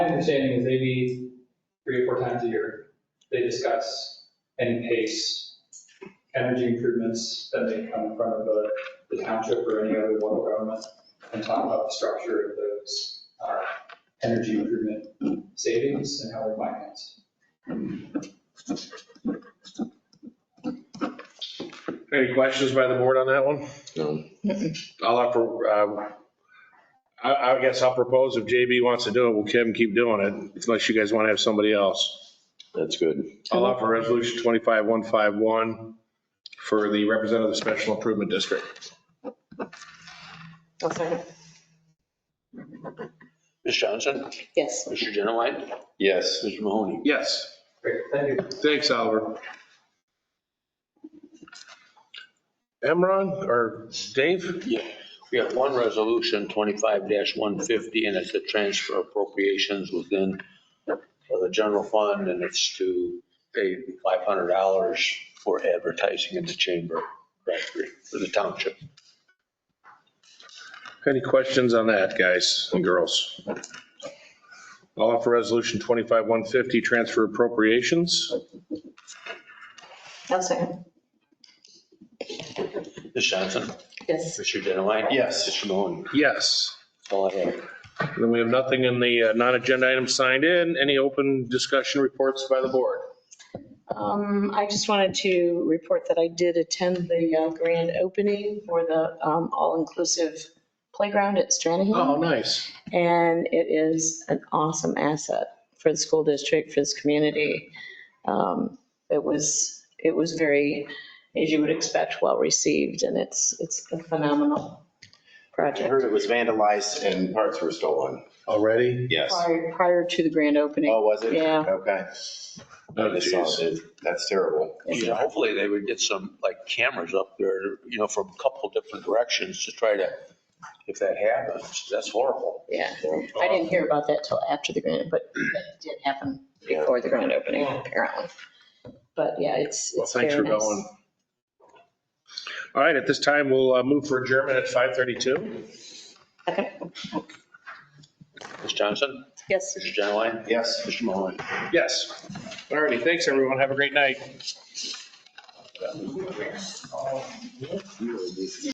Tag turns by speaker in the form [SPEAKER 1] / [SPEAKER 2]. [SPEAKER 1] understanding is they meet three or four times a year. They discuss and pace energy improvements that may come in front of the the township or any other local government and talk about the structure of those uh, energy improvement savings and how they're financed.
[SPEAKER 2] Any questions by the board on that one?
[SPEAKER 3] No.
[SPEAKER 2] I'll offer, um, I, I guess I'll propose if JB wants to do it, we'll Kim keep doing it, unless you guys want to have somebody else.
[SPEAKER 3] That's good.
[SPEAKER 2] I'll offer resolution 25151 for the representative special improvement district.
[SPEAKER 4] I'll second.
[SPEAKER 5] Ms. Johnson?
[SPEAKER 4] Yes.
[SPEAKER 5] Mr. Genowine?
[SPEAKER 3] Yes.
[SPEAKER 5] Mr. Mahoney?
[SPEAKER 2] Yes.
[SPEAKER 1] Great, thank you.
[SPEAKER 2] Thanks, Oliver. Emron or Dave?
[SPEAKER 5] Yeah. We have one resolution, 25-150, and it's a transfer appropriations within uh, the general fund, and it's to pay $500 for advertising in the chamber, directory for the township.
[SPEAKER 2] Any questions on that, guys and girls? I'll offer resolution 25150, transfer appropriations.
[SPEAKER 4] I'll second.
[SPEAKER 5] Ms. Johnson?
[SPEAKER 4] Yes.
[SPEAKER 5] Mr. Genowine?
[SPEAKER 3] Yes.
[SPEAKER 5] Mr. Mahoney?
[SPEAKER 2] Yes.
[SPEAKER 5] That's all I have.
[SPEAKER 2] Then we have nothing in the uh, non-agenda items signed in. Any open discussion reports by the board?
[SPEAKER 4] Um, I just wanted to report that I did attend the uh, grand opening for the um, all-inclusive playground at Stranahan.
[SPEAKER 2] Oh, nice.
[SPEAKER 4] And it is an awesome asset for the school district, for this community. Um, It was, it was very, as you would expect, well-received and it's, it's a phenomenal
[SPEAKER 3] I
[SPEAKER 4] project
[SPEAKER 3] heard it was vandalized and parts were stolen.
[SPEAKER 2] Already?
[SPEAKER 3] Yes. Oh,
[SPEAKER 4] prior, prior to the grand opening.
[SPEAKER 3] was it?
[SPEAKER 4] Yeah.
[SPEAKER 3] Okay.
[SPEAKER 2] Oh,
[SPEAKER 3] I just saw it. That's terrible.
[SPEAKER 5] Yeah, hopefully they would get some, like, cameras up there, you know, from a couple different directions to try to, if that happens, that's horrible.
[SPEAKER 4] Yeah. I didn't
[SPEAKER 2] um,
[SPEAKER 4] hear about that till after the grant, but it did happen before the grand opening, apparently. But yeah, it's,
[SPEAKER 2] Well,
[SPEAKER 4] it's
[SPEAKER 2] thanks for
[SPEAKER 4] very nice.
[SPEAKER 2] going. All right, at this time, we'll uh, move for adjournment at 5:32.
[SPEAKER 4] Okay.
[SPEAKER 5] Ms. Johnson?
[SPEAKER 4] Yes.
[SPEAKER 5] Mr. Genowine?
[SPEAKER 3] Yes.
[SPEAKER 5] Mr. Mahoney?
[SPEAKER 2] Yes. All righty, thanks, everyone. Have a great night.